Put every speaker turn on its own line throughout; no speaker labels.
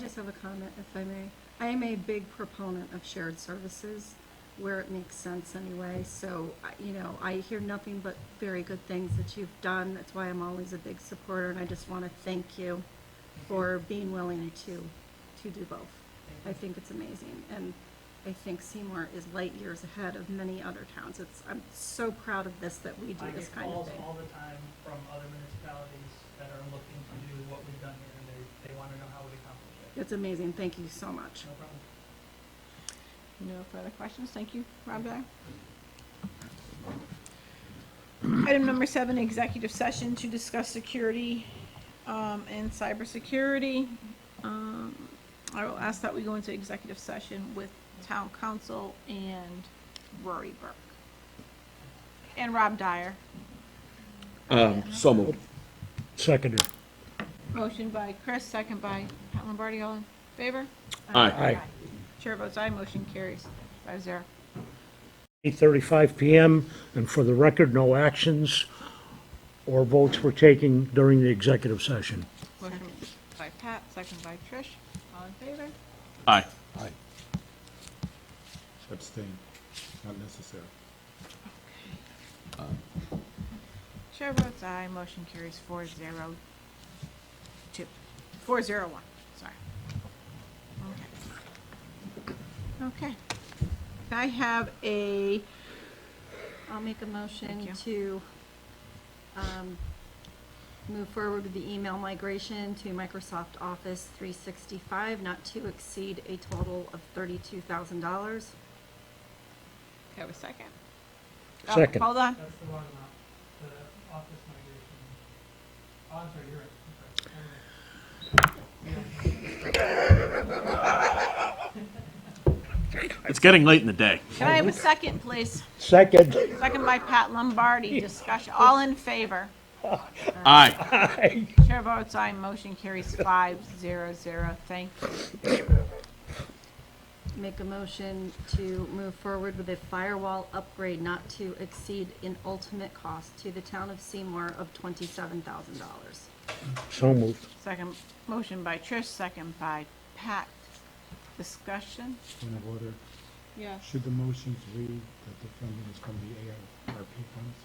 just have a comment, if I may. I am a big proponent of shared services where it makes sense anyway. So, I- you know, I hear nothing but very good things that you've done. That's why I'm always a big supporter, and I just want to thank you for being willing to, to do both. I think it's amazing, and I think Seymour is light years ahead of many other towns. It's, I'm so proud of this, that we do
I
this
get
kind of
calls
thing.
all the time from other municipalities that are looking to do what we've done here, and they, they wanna know how we accomplish it.
It's amazing. Thank you so much.
No problem.
No further questions. Thank you, Rob Guy. Item number seven, executive session to discuss security um, and cybersecurity. Um, I will ask that we go into executive session with town council and Rory Burke. And Rob Dyer.
Um, so moved.
Seconded.
Motion by Chris, second by Pat Lombardi. All in favor?
Aye.
Chair votes aye. Motion carries five zero.
8:35 PM, and for the record, no actions or votes were taken during the executive session.
Motion by Pat, second by Trish. All in favor?
Aye.
Aye. Abstain, not necessary.
Chair votes aye, motion carries four zero two, four zero one, sorry. Okay. Okay. I have a,
I'll make a
Thank
motion
you.
to um, move forward with the email migration to Microsoft Office 365, not to exceed a total of $32,000.
have a second. Oh,
Second.
Hold on,
That's the wrong amount, the office migration. Oh, I'm sorry, you're right, I'm sorry. Never mind.
It's getting late in the day.
can I have a second, please?
Second.
Second by Pat Lombardi, discussion, all in favor?
Aye.
Chair votes aye, motion carries five zero zero, thank you.
Make a motion to move forward with a firewall upgrade not to exceed an ultimate cost to the town of Seymour of $27,000.
So moved.
Second, motion by Trish, second by Pat, discussion?
Point of order,
Yeah.
should the motions read that the funding is from the ARP funds?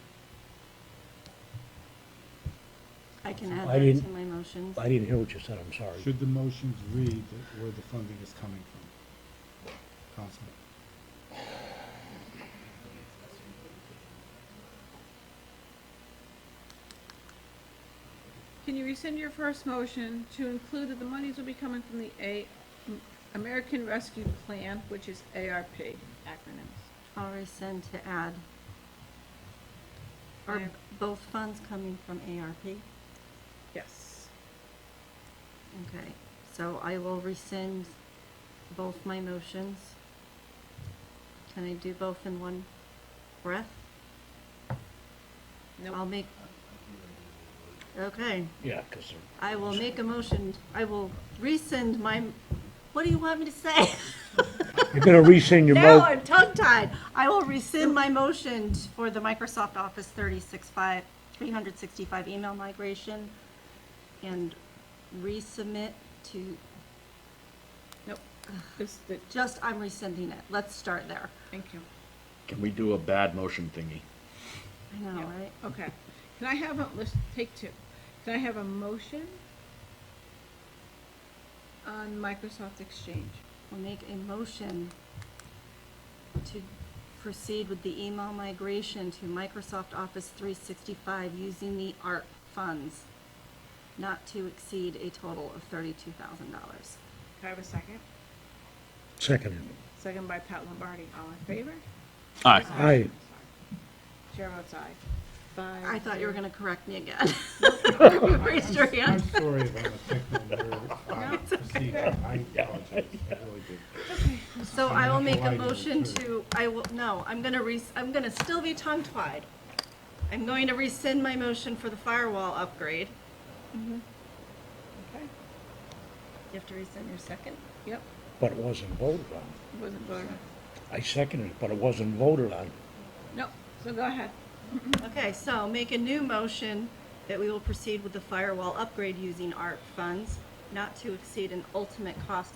I can add
I
that to
didn't-
my motions.
I didn't hear what you said, I'm sorry.
Should the motions read that where the funding is coming from? Councilman?
Can you rescind your first motion to include that the monies will be coming from the A, American Rescue Plan, which is ARP acronyms?
I'll rescind to add. Are
Yeah.
both funds coming from ARP?
Yes.
Okay, so I will rescind both my motions. Can I do both in one breath?
No.
I'll make. Okay,
Yeah, because
I will make a motion, I will rescind my, what do you want me to say?
you're going to rescind your
Now
mo,
I'm tongue-tied. I will rescind my motion for the Microsoft Office 365, 365 email migration and resubmit to
Nope. This, the,
Just, I'm rescinding it. Let's start there.
thank you.
Can we do a bad motion thingy?
I know,
Yeah.
right?
Okay. Can I have a, let's take two. Can I have a motion on Microsoft Exchange?
We'll make a motion to proceed with the email migration to Microsoft Office 365 using the ARP funds, not to exceed a total of $32,000.
Can I have a second?
seconded.
Second by Pat Lombardi, all in favor?
Aye.
Aye.
Sorry. Chair votes aye. Five.
I thought you were
zero.
going to correct me again. You Raised your
I'm
hand.
sorry if I'm affecting your uh, procedure, I apologize, I really do.
So I will make a
Why do you
motion
too?
to, I will, no, I'm gonna re, I'm gonna still be tongue-tied. I'm going to rescind my motion for the firewall upgrade.
Okay.
Mm-hmm. You have to rescind your second?
Yep,
But it wasn't voted on.
wasn't voted on.
I seconded it, but it wasn't voted on.
Nope, so go ahead.
Okay, so make a new motion that we will proceed with the firewall upgrade using ARP funds, not to exceed an ultimate cost